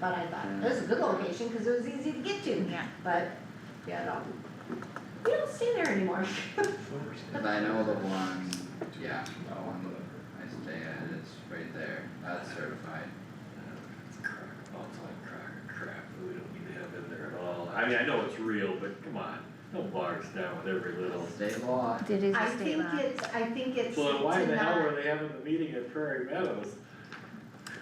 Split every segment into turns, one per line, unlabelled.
But I thought, it was a good location, cause it was easy to get to.
Yeah.
But, yeah, no, we don't stay there anymore.
Cause I know the one, yeah, the one I stay at is right there, that's certified.
Outside crack crap that we don't need to have in there at all. I mean, I know it's real, but come on, don't bog us down with every little.
State law,
It is
I
a state
think
law.
it's, I think it's
Well, then why
to
the hell
not-
were they having the meeting at Prairie Meadows?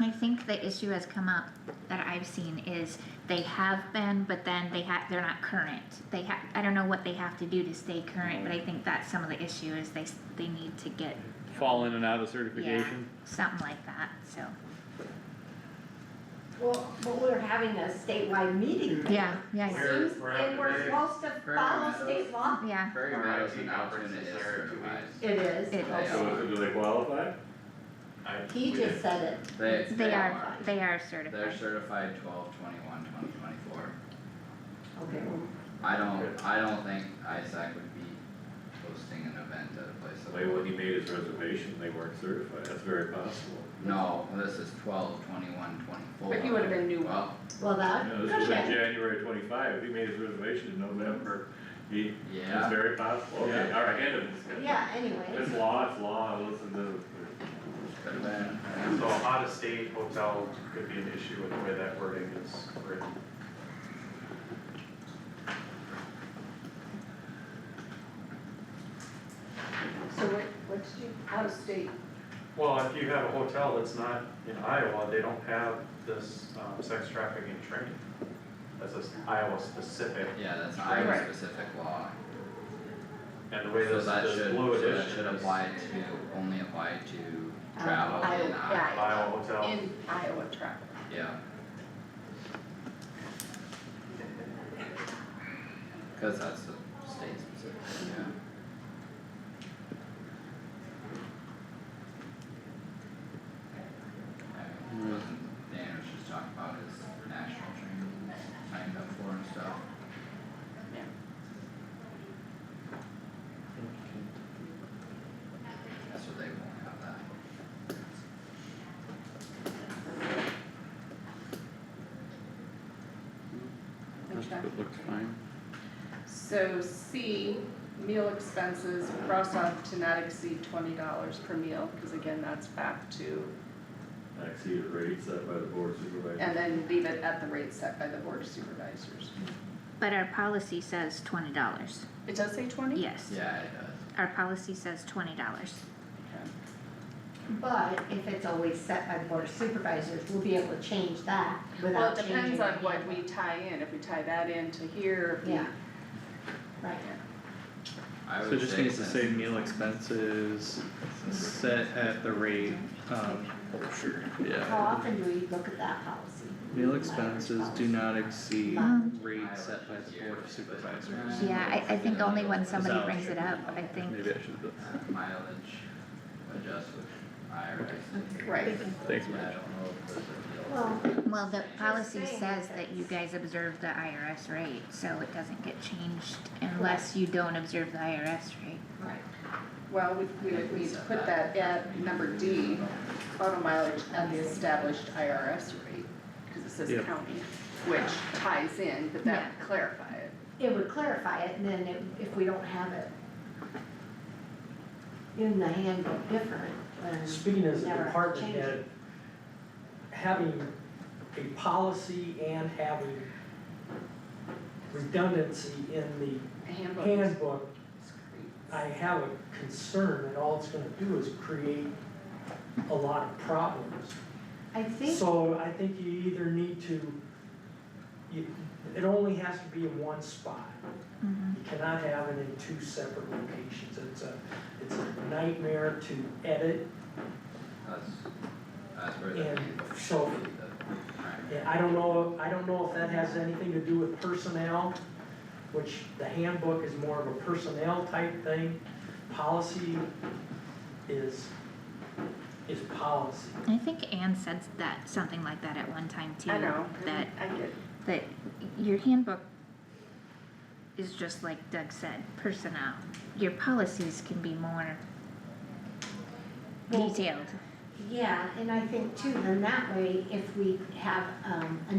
I think the issue has come up that I've seen is they have been, but then they ha they're not current. They ha, I don't know what they have to do to stay current, but I think that's some of the issue is they, s- they need to get,
fall in and out of
yeah,
certification.
something like that, so.
Well, but we're having a statewide meeting. there.
Yeah, yeah, yeah.
Seems-
We're- we're
And we're
having a
supposed to
Fair
follow
enough.
state law.
yeah,
Prairie
Our
Meadows
IT
and Altoona
conference
is
is there in two
certified.
It is,
It
They
is.
are,
So, do they qualify?
I-
he
we-
just said it,
they,
they are, they are
They're
certified.
certified twelve twenty-one, twenty twenty-four.
okay, well,
I don't, I don't think ISAC would be hosting an event at a place like.
Maybe when he made his reservation, they weren't certified, that's very possible.
No, this is twelve twenty-one, twenty-four.
But he would've been new.
Well,
well,
You
that,
know, this was in
Uh, okay,
January twenty-five, if he made his reservation in November, he, it's
yeah,
very possible, okay,
Yeah.
alright, end of discussion.
yeah, anyway,
It's law, it's law, listen to,
could've been,
So out of state hotel could be an issue with the way that wording is written.
So what, what did you, out of state,
Well, if you have a hotel that's not in Iowa, they don't have this, um, sex trafficking training. That's a s- Iowa specific,
yeah, that's
Right.
Iowa specific law.
and the way this,
So that
this
should,
blue
so
edition
that
is.
should apply to, only apply to
Um,
travel in
Iowa,
Iowa,
Iowa hotel,
in Iowa travel?
yeah. Cause that's a state specific, yeah. I mean, wasn't Dan was just talking about his national training, signed up for and stuff. So they won't have that.
That's,
Okay.
it looks fine.
So C, meal expenses, cross off to not exceed twenty dollars per meal, cause again, that's back to,
I see the rate set by the board supervisor.
and then leave it at the rate set by the board of supervisors.
But our policy says twenty dollars,
It does say twenty?
yes.
Yeah, it does.
Our policy says twenty dollars.
but if it's always set by the board of supervisors, we'll be able to change that
Well,
without
it
changing.
depends on
any
what
of
we
it.
tie in, if we tie that into here, if we.
Yeah, right,
I
So
would
it just
say
needs to
since-
say meal expenses set at the rate of. Oh, sure.
how
Yeah,
often do we look at that policy?
meal expenses do not exceed
Um,
rate set by the board of supervisors.
Yeah, I, I think only when somebody
Is that-
brings it up, I think.
Maybe I should, put-
mileage adjusted IRS.
Right,
thanks,
Yeah, I
Mitch.
don't know if there's a
Well,
deal.
Well, the policy
saying
says
that
that you guys observe the IRS rate, so it doesn't get changed
Correct.
unless you don't observe the IRS rate.
right,
well, we, we would need to put that at number D, auto mileage at the established IRS rate, cause it says
Yeah.
county, which ties in, but that would clarify it.
it would clarify it, and then if, if we don't have it in the handbook different, then.
Speaking as a
Never
department
change
head,
it.
having a policy and having redundancy in
A
the
handbook is
handbook, I
great.
have a concern that all it's gonna do is create a lot of problems.
I think,
So I think you either need to, you, it only has to be in one spot.
Mhm.
Mm-hmm.
You cannot have it in two separate locations. It's a, it's a nightmare to edit
That's, that's where the
And
handbook
so-
should be the primary.
Yeah, I don't know, I don't know if that has anything to do with personnel, which the handbook is more of a personnel type thing. Policy is, is policy.
I think Anne said that, something like that at one time too.
I know,
That,
I get,
that your handbook is just like Doug said, personnel. Your policies can be more
Well-
detailed.
yeah, and I think too, then that way, if we have, um, a